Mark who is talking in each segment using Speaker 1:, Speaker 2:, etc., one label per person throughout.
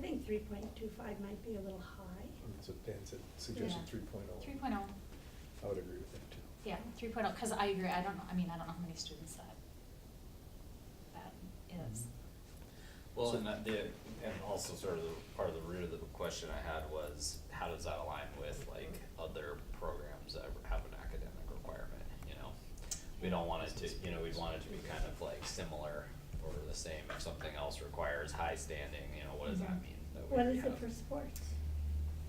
Speaker 1: think three point two five might be a little high.
Speaker 2: That's what Dan said, suggested
Speaker 3: Yeah.
Speaker 2: three point oh.
Speaker 3: Three point oh,
Speaker 2: I would agree with that too.
Speaker 3: yeah, three point oh, cause I agree, I don't know, I mean, I don't know how many students that, that is.
Speaker 4: Well, and that, the, and also sort of the, part of the root of the question I had was, how does that align with like other programs that have an academic requirement, you know? We don't want it to, you know, we'd want it to be kind of like similar or the same, if something else requires high standing, you know, what does that
Speaker 3: Mhm.
Speaker 4: mean? that we
Speaker 1: Mm-hmm. What is
Speaker 4: have?
Speaker 1: it for sports?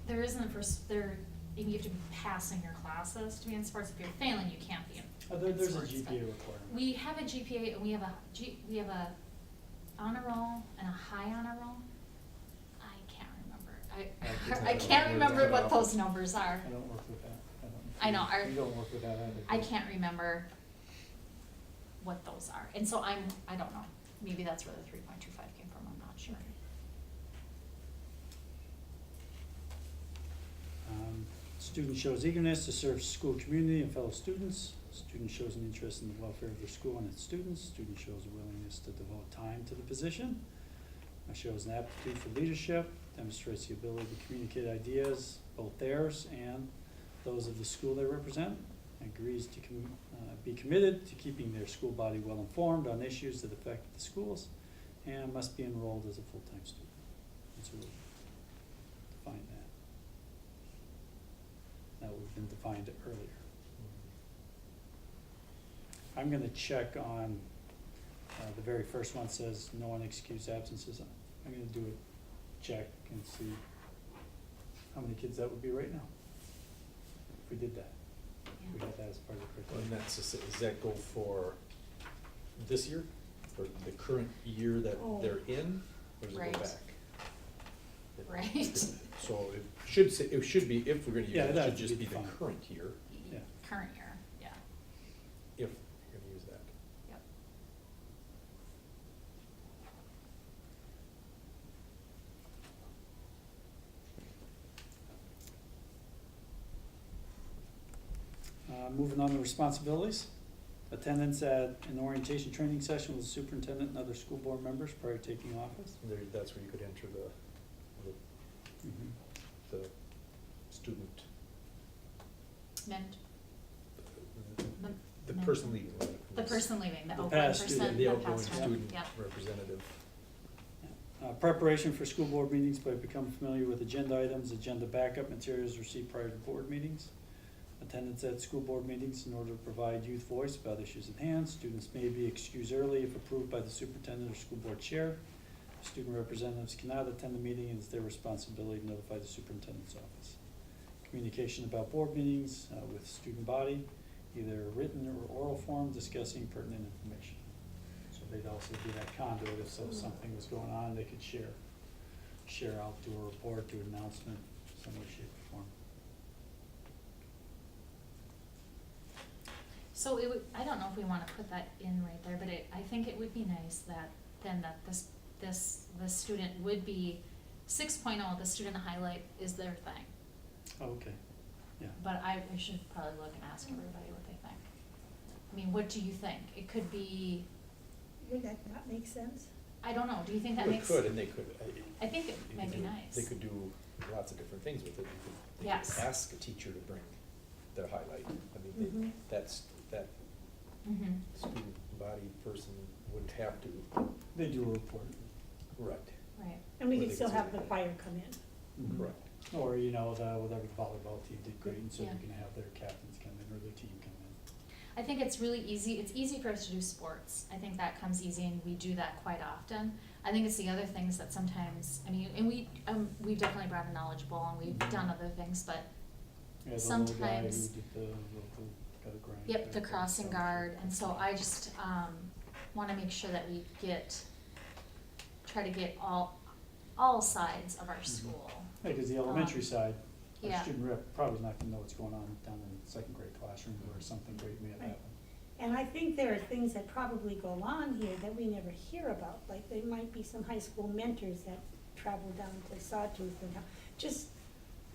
Speaker 3: There isn't for, s- there, you have to be passing your classes to be in sports, if you're failing, you can't be in
Speaker 5: Uh, there-
Speaker 3: in
Speaker 5: there's a
Speaker 3: sports, but
Speaker 5: GPA requirement.
Speaker 3: We have a GPA and we have a G, we have a honor roll and a high honor roll. I can't
Speaker 5: I
Speaker 3: remember,
Speaker 5: can't
Speaker 3: I, I can't
Speaker 5: remember.
Speaker 3: remember what those numbers
Speaker 5: I
Speaker 3: are,
Speaker 5: don't work with that. I don't.
Speaker 3: I know, our-
Speaker 5: You don't work with that either.
Speaker 3: I can't remember what those are, and so I'm, I don't know, maybe that's where the three point two five came from, I'm not sure.
Speaker 5: Um, Student shows eagerness to serve school community and fellow students. Student shows an interest in the welfare of their school and its students. Student shows a willingness to devote time to the position. Uh, Shows an aptitude for leadership, demonstrates the ability to communicate ideas, both theirs and those of the school they represent. Agrees to com- uh, be committed to keeping their school body well informed on issues that affect the schools and must be enrolled as a full-time student. That's what we define that that we've been defined earlier. I'm gonna check on, uh, the very first one says no unexcused absences. I'm gonna do a check and see how many kids that would be right now. If we did that, if we
Speaker 3: Yeah.
Speaker 5: had that as part of the
Speaker 2: Mm-hmm. And
Speaker 5: curriculum.
Speaker 2: that's, the s- does that go for this year, or the current year that
Speaker 1: Oh.
Speaker 2: they're in, or does it
Speaker 3: Right.
Speaker 2: go back? It-
Speaker 3: Right.
Speaker 2: So it should say, it should be, if we're gonna use
Speaker 5: Yeah,
Speaker 2: it,
Speaker 5: that
Speaker 2: it should
Speaker 5: would
Speaker 2: just be
Speaker 5: be
Speaker 2: the
Speaker 5: fine.
Speaker 2: current year,
Speaker 5: Yeah.
Speaker 3: Current year, yeah,
Speaker 2: if we're gonna use that.
Speaker 3: yep.
Speaker 5: Uh, moving on to responsibilities. Attendance at an orientation training session with the superintendent and other school board members prior to taking office.
Speaker 2: There, that's where you could enter the,
Speaker 5: Mhm.
Speaker 2: the, the student,
Speaker 3: Meant,
Speaker 2: the- the
Speaker 3: men-
Speaker 2: person leading.
Speaker 3: the person leaving, the outgoing
Speaker 5: past
Speaker 3: person, the past
Speaker 5: student,
Speaker 3: one,
Speaker 2: The
Speaker 3: yep.
Speaker 2: outgoing student representative.
Speaker 5: Uh, preparation for school board meetings by becoming familiar with agenda items, agenda backup materials received prior to board meetings. Attendance at school board meetings in order to provide youth voice about issues at hand. Students may be excused early if approved by the superintendent or school board chair. Student representatives cannot attend the meeting and it's their responsibility to notify the superintendent's office. Communication about board meetings uh, with student body, either written or oral form discussing pertinent information. So they'd also be that conduit if so something was going on, they could share, share out, do a report, do an announcement, some way, shape, or form.
Speaker 3: So it would, I don't know if we wanna put that in right there, but it, I think it would be nice that, then that this, this, the student would be, six oh, the student highlight is their thing.
Speaker 5: Oh, Okay, yeah.
Speaker 3: But I, we should probably look and ask everybody what they think. I mean, what do you think? It could be,
Speaker 1: Would that not make sense?
Speaker 3: I don't know, do you think that
Speaker 2: Well, it
Speaker 3: makes?
Speaker 2: could, and they could. uh,
Speaker 3: I think it
Speaker 2: you
Speaker 3: might
Speaker 2: could
Speaker 3: be
Speaker 2: do-
Speaker 3: nice.
Speaker 2: They could do lots of different things with it. You could- they could
Speaker 3: Yes.
Speaker 2: Ask a teacher to bring their highlight. I mean,
Speaker 1: Mhm.
Speaker 2: they- that's, that
Speaker 3: Mhm.
Speaker 2: student body person wouldn't have to
Speaker 5: They do a report.
Speaker 2: write,
Speaker 3: right,
Speaker 1: And we
Speaker 2: Well,
Speaker 1: could
Speaker 2: they
Speaker 1: still
Speaker 2: could
Speaker 1: have
Speaker 2: say-
Speaker 1: the choir come in.
Speaker 5: Mm-hmm.
Speaker 2: correct?
Speaker 5: Or, you know, the, whatever the volleyball team did great, and so you
Speaker 3: Yeah.
Speaker 5: can have their captains come in or their team come in.
Speaker 3: I think it's really easy, it's easy for us to do sports. I think that comes easy and we do that quite often. I think it's the other things that sometimes, I mean, and we, um, we've definitely brought a knowledge bowl and we've done other things, but,
Speaker 5: We had the little guy who
Speaker 3: Sometimes-
Speaker 5: did the local, got a grind.
Speaker 3: yep, the
Speaker 5: back there,
Speaker 3: crossing
Speaker 5: so-
Speaker 3: guard. And so I just, um, wanna make sure that we get, try to get all, all sides of our school.
Speaker 5: Yeah, cause the elementary
Speaker 3: Um,
Speaker 5: side, our
Speaker 3: yeah.
Speaker 5: student rep probably is not gonna know what's going on down in the second grade classroom where something great may have
Speaker 1: Right.
Speaker 5: happened.
Speaker 1: And I think there are things that probably go on here that we never hear about, like there might be some high school mentors that travel down to Sawtooth and, help. just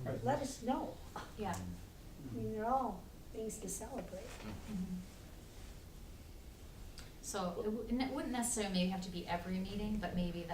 Speaker 5: Right.
Speaker 1: let us know.
Speaker 3: Yeah.
Speaker 4: Mm-hmm.
Speaker 1: I
Speaker 5: Mm-hmm.
Speaker 1: mean, they're all things to celebrate.
Speaker 3: Mhm. So it wou- and it wouldn't necessarily have to be every meeting, but maybe